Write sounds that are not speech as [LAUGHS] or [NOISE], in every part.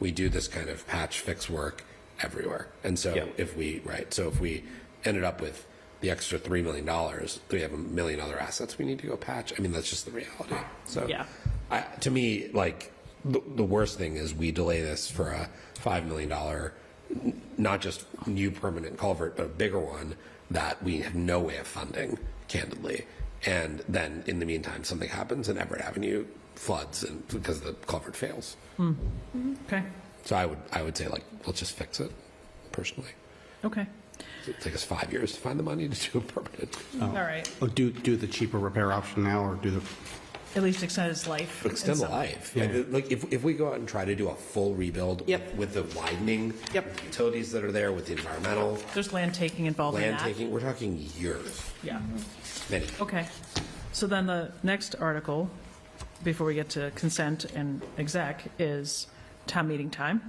we do this kind of patch fix work everywhere. And so Yeah. if we, right, so if we ended up with the extra $3 million, we have a million other assets we need to go patch. I mean, that's just the reality. So Yeah. I, to me, like the, the worst thing is we delay this for a $5 million, n- not just new permanent culvert, but a bigger one that we have no way of funding candidly. And then in the meantime, something happens and Everett Avenue floods and because the culvert fails. Okay, So I would, I would say like, let's just fix it personally. okay, It'd take us five years to find the money to do a permanent. all right. Oh, do, do the cheaper repair option now, or do the, At least extend his life. in Extend the some- life. Yeah. Like, like, if, if we go out and try to do a full rebuild Yep. with the widening, Yep. with the utilities that are there, with the environmental, There's land taking Oh, involved in land that. taking, we're talking years. Yeah, Many. Oh. okay. So then the next article, before we get to consent and exec, is town meeting time.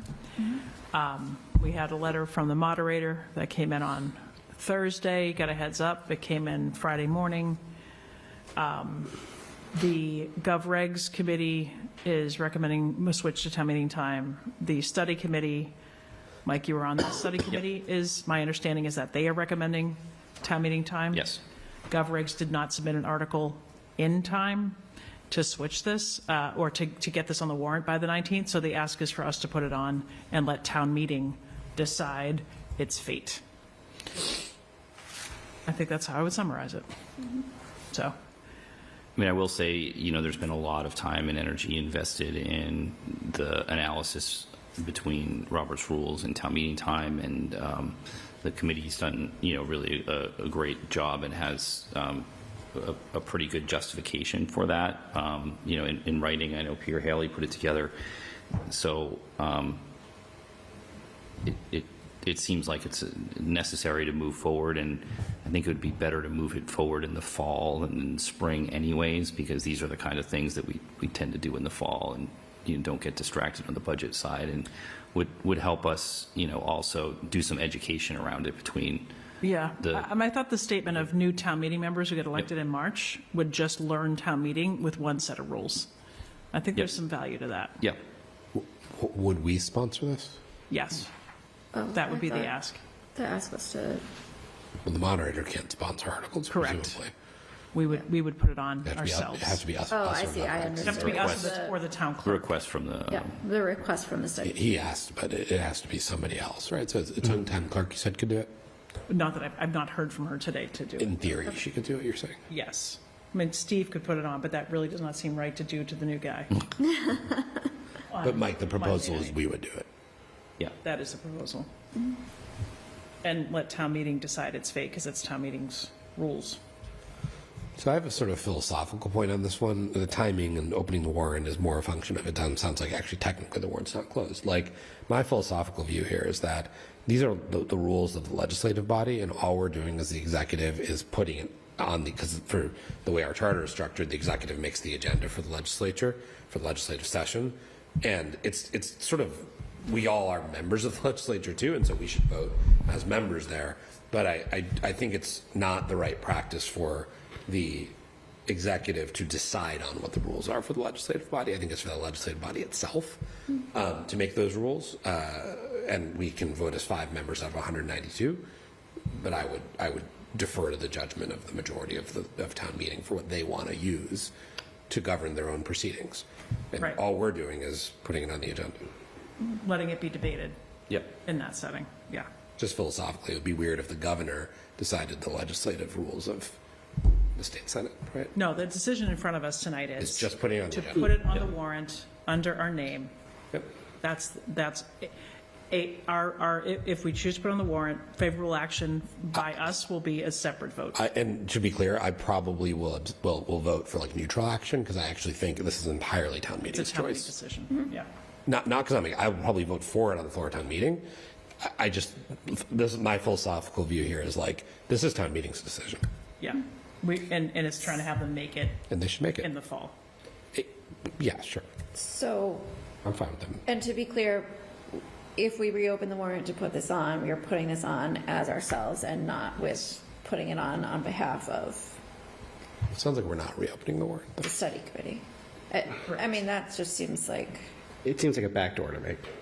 Um, We had a letter from the moderator that came in on Thursday, got a heads up, it came in Friday morning. The GovRegs Committee is recommending a switch to town meeting time. The study committee, Mike, you were on the study committee, is, my understanding is that they are recommending town meeting time? Yes. GovRegs did not submit an article in time to switch this, uh, or to, to get this on the warrant by the 19th, so the ask is for us to put it on and let town meeting decide its fate. I think that's how I would summarize it. So. I mean, I will say, you know, there's been a lot of time and energy invested in the analysis between Robert's rules and town meeting time, and um, the committee's done, you know, really a, a great job and has um, a, a pretty good justification for that. Um, you know, in, in writing, I know Peter Haley put it together. So, it, it, it seems like it's uh, necessary to move forward, and I think it would be better to move it forward in the fall and in spring anyways, because these are the kind of things that we, we tend to do in the fall, and you don't get distracted on the budget side, and would, would help us, you know, also do some education around it between, Yeah, the- I- um, I thought the statement of new town meeting members who get elected in March would just learn town meeting with one set of rules. I think there's Yep. some value to that, yeah, W- Would we sponsor this? yes. Oh, That would I be the thought ask. The ask was to, Well, the moderator can't sponsor articles, Correct. presumably. We would, we would put it on It has to be- ourselves. It has to be us. oh, us I or see, I nothing. It'd have to be understand. us or The- the- or the town the clerk. request from the, Yeah, the request from the study. He asked, but it, it has to be somebody else, right? So it's, it's on town clerk, you said could do it? Not that I've, I've not heard from her today to do it. In theory, she could do it, you're saying? Yes. I mean, Steve could put it on, but that really does not seem right to do to the new guy. On [LAUGHS] But Mike, the Monday proposal is night. we would do it. yeah, [LAUGHS] That is the proposal. And let town meeting decide its fate, because it's town meeting's rules. So I have a sort of philosophical point on this one. The timing and opening the warrant is more a function of it doesn't sounds like actually technically the warrant's not closed. Like my philosophical view here is that these are the, the rules of the legislative body, and all we're doing as the executive is putting it on the because for the way our charter is structured, the executive makes the agenda for the legislature for the legislative session, and it's it's sort of we all are members of the [LAUGHS] legislature too, and so we should vote as members there. But I, I, I think it's not the right practice for the executive to decide on what the rules are for the legislative body. I think it's for the legislative body itself Mm-hmm. um, to make those rules. Uh, and we can vote as five members out of 192. But I would, I would defer to the judgment of the majority of the of town meeting for what they want to use to govern their own proceedings. And Right. all we're doing is putting it on the agenda. letting it be debated yeah, in that setting, yeah. Just philosophically, it would be weird if the governor decided the legislative rules of the state senate, right? No, the decision in front of us tonight is. It's just putting it on the To agenda. put it on the warrant under our name. Yep. That's, that's, a, our, our, i- if we choose to put on the warrant, favorable action by us will be a separate vote. I, and to be clear, I probably will, abs- will, will vote for like neutral action because I actually think this is entirely town It's a meeting's town meeting choice. decision, yeah. Not, not because I'm, I would probably vote for it on the floor of town meeting. I, I just, this is my philosophical view here is like, this is town meeting's decision Yeah. We, and, and it's trying to have them make it and they should make in it. the fall. It- Yeah, sure. So, I'm fine with them. and to be clear, if we reopen the warrant to put this on, we are putting this on as ourselves and not with putting it on on behalf of It Sounds like we're not reopening the warrant. though. the study committee. I, I mean, that just seems like. it seems like a backdoor to me.